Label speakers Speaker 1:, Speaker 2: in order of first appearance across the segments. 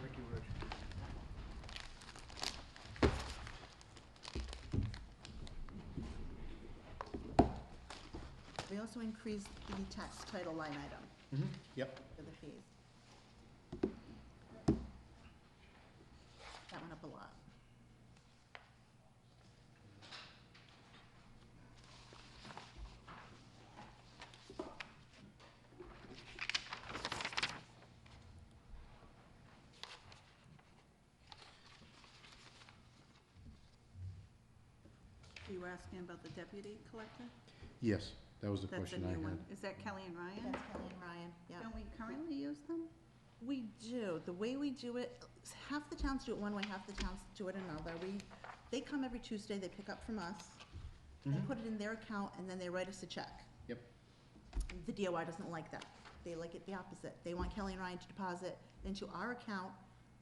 Speaker 1: Thank you, Rich.
Speaker 2: We also increased the tax title line item
Speaker 1: Mm-hmm, yep.
Speaker 2: for the fees. That went up a lot.
Speaker 3: You were asking about the deputy collector?
Speaker 4: Yes, that was the
Speaker 3: That's a
Speaker 4: question I
Speaker 3: new one.
Speaker 4: had.
Speaker 3: Is that Kelly and Ryan?
Speaker 2: That's Kelly and Ryan, yeah.
Speaker 3: Don't we currently use them?
Speaker 2: We do, the way we do it, half the towns do it one way, half the towns do it another. We, they come every Tuesday, they pick up from us, they
Speaker 1: Mhm.
Speaker 4: Mm-hmm.
Speaker 2: put it in their account, and then they write us a check.
Speaker 1: Yep.
Speaker 2: The DOI doesn't like that. They like it the opposite. They want Kelly and Ryan to deposit into our account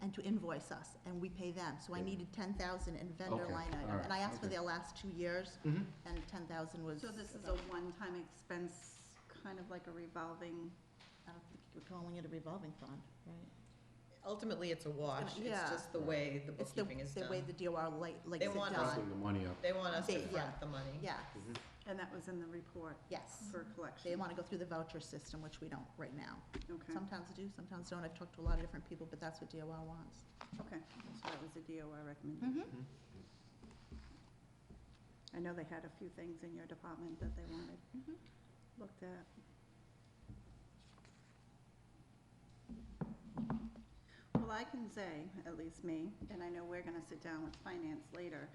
Speaker 2: and to invoice us, and we pay them. So I
Speaker 4: Yeah.
Speaker 2: needed ten thousand in vendor
Speaker 4: Okay,
Speaker 2: line
Speaker 4: all
Speaker 2: item,
Speaker 4: right,
Speaker 2: and I asked for
Speaker 4: okay.
Speaker 2: their last two years,
Speaker 1: Mm-hmm.
Speaker 2: and ten thousand was.
Speaker 3: So this is a one-time expense, kind of like a revolving,
Speaker 2: I don't think you're calling it a revolving fund, right?
Speaker 5: Ultimately, it's a wash,
Speaker 2: Yeah.
Speaker 5: it's just the way the
Speaker 2: It's the,
Speaker 5: bookkeeping is
Speaker 2: the
Speaker 5: done.
Speaker 2: way the DOR like, likes
Speaker 5: They
Speaker 2: it
Speaker 5: want us-
Speaker 2: done.
Speaker 4: Pumping the money up.
Speaker 5: They want us to
Speaker 2: They- yeah.
Speaker 5: front the money.
Speaker 2: Yes,
Speaker 4: Mhm.
Speaker 3: and that was in the report
Speaker 2: yes.
Speaker 3: for
Speaker 2: They
Speaker 3: collection.
Speaker 2: wanna go through the voucher system, which we don't right now.
Speaker 3: Okay,
Speaker 2: Sometimes do, sometimes don't. I've talked to a lot of different people, but that's what DOR wants.
Speaker 3: okay, so that was a DOI recommendation. I know they had a few things in your department that they wanted
Speaker 2: Mhm.
Speaker 3: looked at. Well, I can say, at least me, and I know we're gonna sit down with finance later,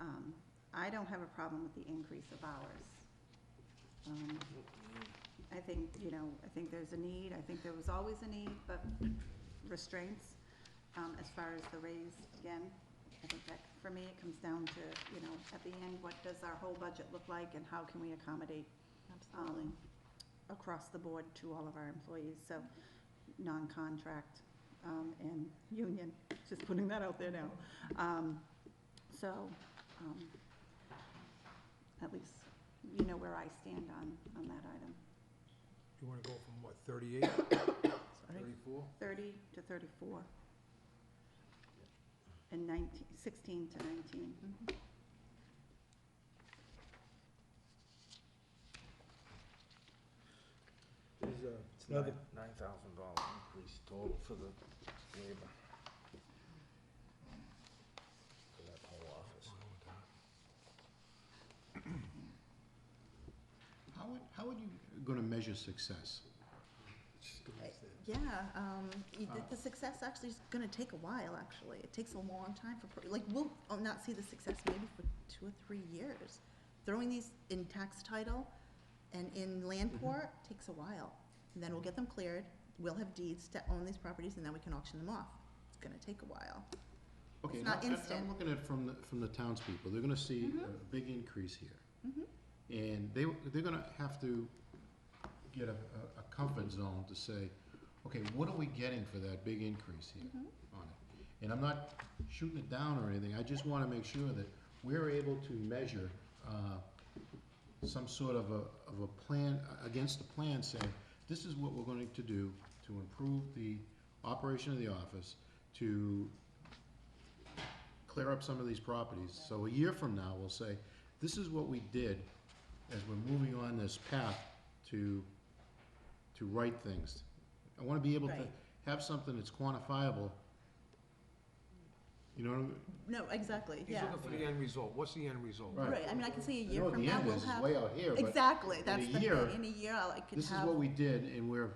Speaker 3: um, I don't have a problem with the increase of hours. Um, I think, you know, I think there's a need, I think there was always a need, but restraints, um, as far as the raise, again, I think that, for me, it comes down to, you know, at the end, what does our whole budget look like and how can we accommodate
Speaker 2: Absolutely.
Speaker 3: um, across the board to all of our employees, so non-contract, um, and union, just putting that out there now. Um, so, um, at least you know where I stand on, on that item,
Speaker 1: You wanna go from what, thirty-eight, thirty-four?
Speaker 3: thirty to thirty-four. And nineteen, sixteen to nineteen.
Speaker 1: There's a.
Speaker 6: uh, It's nine, nine thousand dollar increase total for the labor. For that whole office.
Speaker 4: How would, how would you? Gonna measure success.
Speaker 2: Yeah, um, y- the-
Speaker 4: Uh,
Speaker 2: the success actually is gonna take a while, actually. It takes a long time for, pro- like, we'll uh, not see the success maybe for two or three years. Throwing these in tax title and in land
Speaker 4: Mm-hmm.
Speaker 2: court takes a while. And then we'll get them cleared, we'll have deeds to own these properties, and then we can auction them off. It's gonna take a while.
Speaker 4: Okay,
Speaker 2: It's
Speaker 4: now,
Speaker 2: not
Speaker 4: I- I'm
Speaker 2: instant. Mm-hmm.
Speaker 4: looking at it from the, from the townspeople, they're gonna see a big increase here. And they, they're gonna have to get a, a- a comfort zone to say, okay, what are we getting for that big increase here
Speaker 2: Mm-hmm.
Speaker 4: on it? And I'm not shooting it down or anything, I just wanna make sure that we're able to measure, uh, some sort of a, of a plan, a- against the plan saying, this is what we're going to do to improve the operation of the office, to clear up some of these properties. So a year from now, we'll say, this is what we did as we're moving on this path to, to right things. I wanna be able to
Speaker 2: Right.
Speaker 4: have something that's quantifiable. You know what I mean?
Speaker 2: No, exactly,
Speaker 1: He's
Speaker 2: yeah.
Speaker 1: looking for the end result, what's the end result?
Speaker 4: Right.
Speaker 2: Right, I mean, I can say a
Speaker 4: I know
Speaker 2: year
Speaker 4: what
Speaker 2: from
Speaker 4: the
Speaker 2: now,
Speaker 4: end
Speaker 2: we'll
Speaker 4: is, is
Speaker 2: have.
Speaker 4: way out here, but
Speaker 2: Exactly, that's
Speaker 4: a
Speaker 2: the
Speaker 4: year,
Speaker 2: thing. In a year, I could have.
Speaker 4: this is what we did and we're,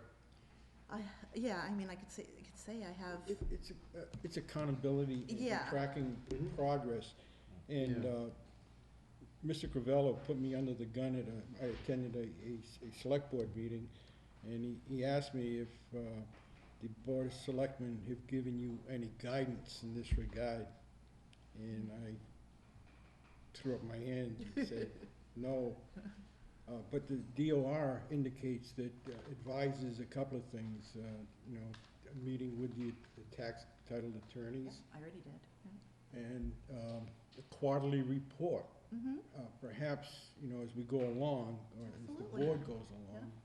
Speaker 2: I, yeah, I mean, I could say, I could say I have.
Speaker 7: It, it's, a- uh, it's accountability and
Speaker 2: Yeah.
Speaker 7: tracking progress. And,
Speaker 4: Yeah.
Speaker 7: uh, Mr. Crivello put me under the gun at a, I attended a, a, s- a select board meeting, and he, he asked me if, uh, the board of selectmen have given you any guidance in this regard. And I threw up my hand and said, no. Uh, but the DOR indicates that uh, advises a couple of things, uh, you know, a meeting with the the tax title
Speaker 2: Yeah,
Speaker 7: attorneys
Speaker 2: I already did.
Speaker 7: and, um, a quarterly report.
Speaker 2: Mm-hmm.
Speaker 7: Uh, perhaps, you know, as we go along, or as the
Speaker 2: Absolutely.
Speaker 7: board goes along,